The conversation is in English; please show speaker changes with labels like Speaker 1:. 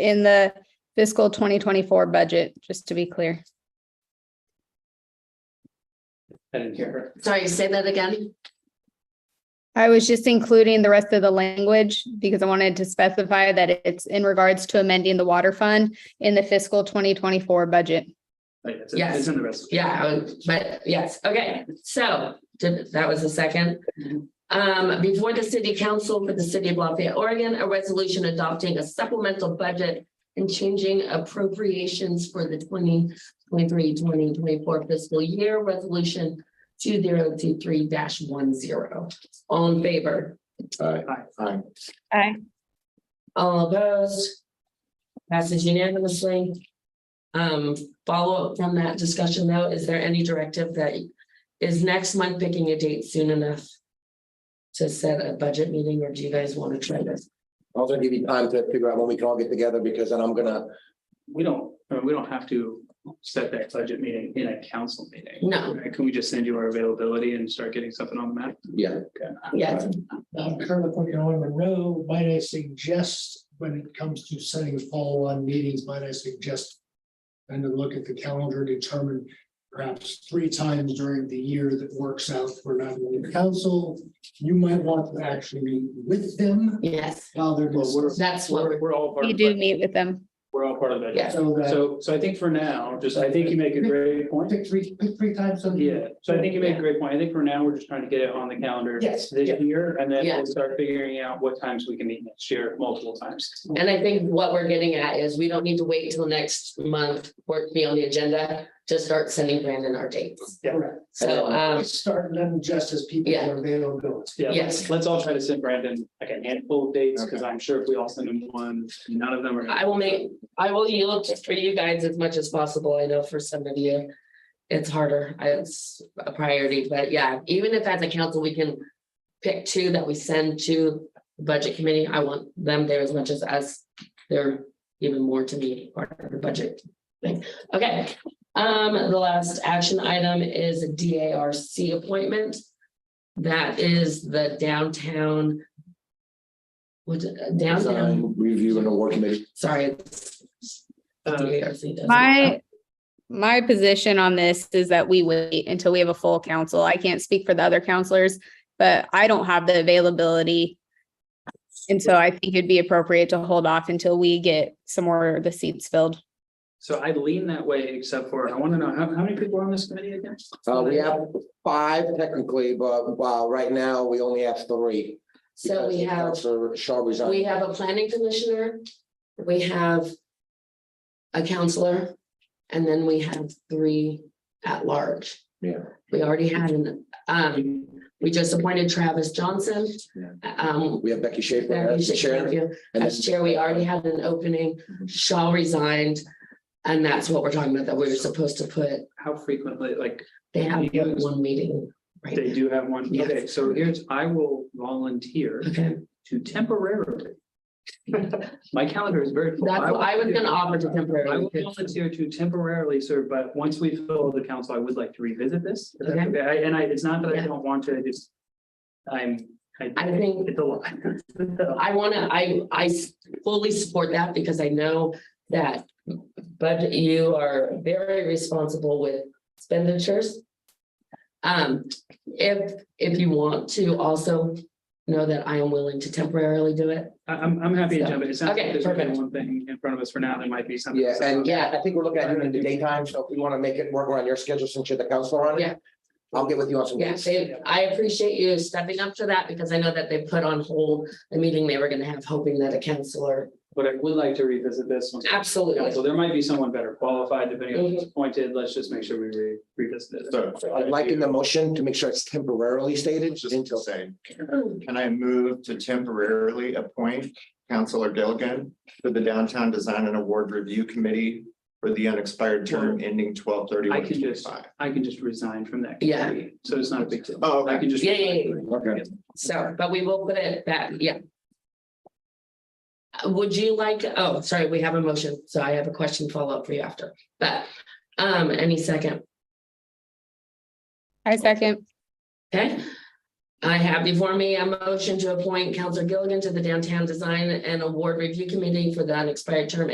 Speaker 1: in the fiscal twenty twenty-four budget, just to be clear.
Speaker 2: I didn't hear her.
Speaker 3: Sorry, say that again.
Speaker 1: I was just including the rest of the language because I wanted to specify that it's in regards to amending the water fund in the fiscal twenty twenty-four budget.
Speaker 2: Like, it's-
Speaker 3: Yes.
Speaker 2: It's in the rest.
Speaker 3: Yeah, I would- but yes, okay, so did- that was the second. Um, before the city council for the city of Lafayette, Oregon, a resolution adopting a supplemental budget and changing appropriations for the 2023-2024 fiscal year, resolution two zero two three one zero. All in favor?
Speaker 4: Aye.
Speaker 2: Aye.
Speaker 1: Aye.
Speaker 3: All opposed? Passes unanimously. Um, follow up from that discussion though, is there any directive that is next month picking a date soon enough? To set a budget meeting, or do you guys want to try this?
Speaker 4: I'll also give you time to figure out when we can all get together because then I'm gonna,
Speaker 2: We don't, I mean, we don't have to set that budget meeting in a council meeting.
Speaker 3: No,
Speaker 2: Right? Can we just send you our availability and start getting something on the map?
Speaker 4: yeah,
Speaker 3: yes,
Speaker 5: I'm currently working on Monroe, might I suggest, when it comes to setting follow-on meetings, might I suggest? And to look at the calendar, determine perhaps three times during the year that works out for not only the council. You might want to actually meet with them
Speaker 3: yes,
Speaker 5: while they're.
Speaker 2: Well, we're-
Speaker 3: that's what
Speaker 2: We're
Speaker 3: we're,
Speaker 2: we're all part
Speaker 1: You
Speaker 2: of,
Speaker 1: do
Speaker 2: it.
Speaker 1: meet with them.
Speaker 2: we're all part of that.
Speaker 3: yes,
Speaker 5: So that,
Speaker 2: So, so I think for now, just, I think you make a great point.
Speaker 5: pick three, pick three times on. the-
Speaker 2: Yeah, so I think you make a great point. I think for now, we're just trying to get it on the calendar.
Speaker 5: Yes.
Speaker 2: This year, and then
Speaker 3: Yeah.
Speaker 2: we'll start figuring out what times we can meet next year, multiple times.
Speaker 3: and I think what we're getting at is we don't need to wait till next month for it to be on the agenda to start sending Brandon our dates.
Speaker 2: Yeah.
Speaker 5: Correct.
Speaker 3: So, um,
Speaker 5: Start them just as people
Speaker 3: Yeah.
Speaker 5: are available.
Speaker 2: Yeah, let's,
Speaker 3: Yes.
Speaker 2: let's all try to send Brandon like a handful of dates, because I'm sure if we all send him one, none of them are.
Speaker 3: I will make, I will yield for you guys as much as possible. I know for some of you. It's harder. It's a priority, but yeah, even if as a council, we can pick two that we send to the budget committee. I want them there as much as us. They're even more to me part of the budget thing. Okay, um, the last action item is a DARC appointment. That is the downtown. What, uh, downtown?
Speaker 4: design review and award committee.
Speaker 3: Sorry. it's-
Speaker 4: Um,
Speaker 2: Uh,
Speaker 3: DARC doesn't-
Speaker 1: My, my position on this is that we wait until we have a full council. I can't speak for the other counselors, but I don't have the availability. And so I think it'd be appropriate to hold off until we get some more of the seats filled.
Speaker 2: So I lean that way, except for, I want to know, how, how many people are on this committee again?
Speaker 4: Uh, we have five technically, but wow, right now we only have three.
Speaker 3: So we have,
Speaker 4: Sir Shaw
Speaker 3: we
Speaker 4: resigned.
Speaker 3: have a planning commissioner, we have a counselor, and then we have three at large.
Speaker 4: Yeah.
Speaker 3: We already had an, um, we just appointed Travis Johnson.
Speaker 4: Yeah.
Speaker 3: Um,
Speaker 4: We have Becky Schaefer as the chair.
Speaker 3: thank you.
Speaker 4: and
Speaker 3: As
Speaker 4: then- Mhm.
Speaker 3: chair, we already had an opening, Shaw resigned, and that's what we're talking about, that we were supposed to put,
Speaker 2: How frequently, like,
Speaker 3: they have one meeting right
Speaker 2: they
Speaker 3: now.
Speaker 2: do have one?
Speaker 3: Yes.
Speaker 2: Okay, so here's, I will volunteer
Speaker 3: Okay.
Speaker 2: to temporarily. My calendar is very full.
Speaker 3: That's what I was gonna offer to
Speaker 2: I
Speaker 3: temporarily.
Speaker 2: will volunteer to temporarily serve, but once we fill the council, I would like to revisit this. Is that
Speaker 3: Okay.
Speaker 2: okay? I- And I, it's not that I
Speaker 3: Yeah.
Speaker 2: don't want to, I just. I'm, I.
Speaker 3: I think-
Speaker 2: It's a lot.
Speaker 3: I wanna, I, I fully support that because I know that, but you are very responsible with expenditures. Um, if, if you want to also know that I am willing to temporarily do it.
Speaker 2: I- I'm, I'm happy to
Speaker 3: So,
Speaker 2: jump in. It sounds like
Speaker 3: okay,
Speaker 2: there's only
Speaker 3: perfect.
Speaker 2: one thing in front of us for now. There might be something.
Speaker 4: Yeah, and
Speaker 3: Yeah.
Speaker 4: yeah, I think we're looking at doing it in the daytime, so if we want to make it work around your schedule since you're the counselor on it.
Speaker 3: Yeah.
Speaker 4: I'll get with you on some
Speaker 3: Yeah,
Speaker 4: dates.
Speaker 3: they, I appreciate you stepping up to that because I know that they put on hold the meeting they were gonna have, hoping that a counselor.
Speaker 2: But I would like to revisit this one.
Speaker 3: Absolutely.
Speaker 2: So there might be someone better qualified depending on
Speaker 3: Mm-hmm.
Speaker 2: who's appointed. Let's just make sure we re- revisit it.
Speaker 6: So
Speaker 4: I'd like in the motion to make sure it's temporarily stated until.
Speaker 6: saying, can I move to temporarily appoint Counselor Gilligan to the Downtown Design and Award Review Committee for the unexpired term ending twelve
Speaker 2: I
Speaker 6: thirty-one
Speaker 2: can just-
Speaker 6: twenty-five?
Speaker 2: I can just resign from that.
Speaker 3: Yeah.
Speaker 2: committee, So it's not a big deal.
Speaker 6: Oh,
Speaker 2: I
Speaker 6: okay.
Speaker 2: can just.
Speaker 3: Yeah, yeah, yeah.
Speaker 4: Okay.
Speaker 3: So, but we will put it back, yeah. Uh, Would you like, oh, sorry, we have a motion, so I have a question follow-up for you after, but, um, any second,
Speaker 1: I second.
Speaker 3: okay? I have before me a motion to appoint Counselor Gilligan to the Downtown Design and Award Review Committee for the unexpired term